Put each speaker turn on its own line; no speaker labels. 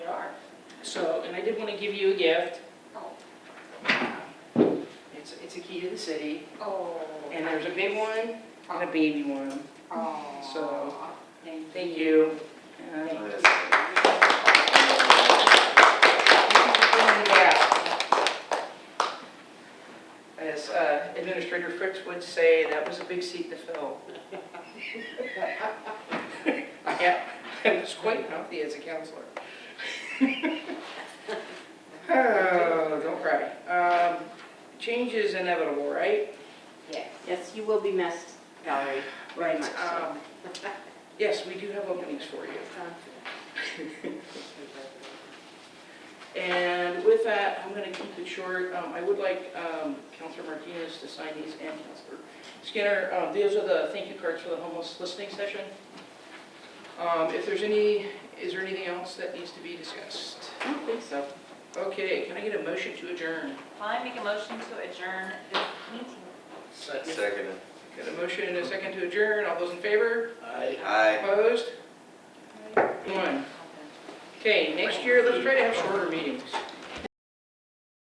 So, and I did want to give you a gift.
Oh.
It's, it's a key to the city,
Oh.
and there's a big one and a baby one.
Oh.
So,
Thank
Thank you. Uh,
Thank
you
you.
can bring it out. As uh, Administrator Fritz would say, that was a big seat to fill. Yeah, I was quite healthy as a counselor. Oh, don't cry. Um, Change is inevitable, right?
Yes.
Yes, you will be missed, Valerie, very much so.
Um, Yes, we do have openings for you. And with that, I'm going to keep it short. Um, I would like um, Counselor Martinez to sign these and Counselor Skinner. Um, These are the thank you cards for the homeless listening session. Um, If there's any, is there anything else that needs to be discussed?
I don't think so.
Okay, can I get a motion to adjourn?
I make a motion to adjourn this meeting.
Second.
Got a motion and a second to adjourn. All those in favor?
Aye.
Opposed? One. Okay, next year, let's try to have shorter meetings.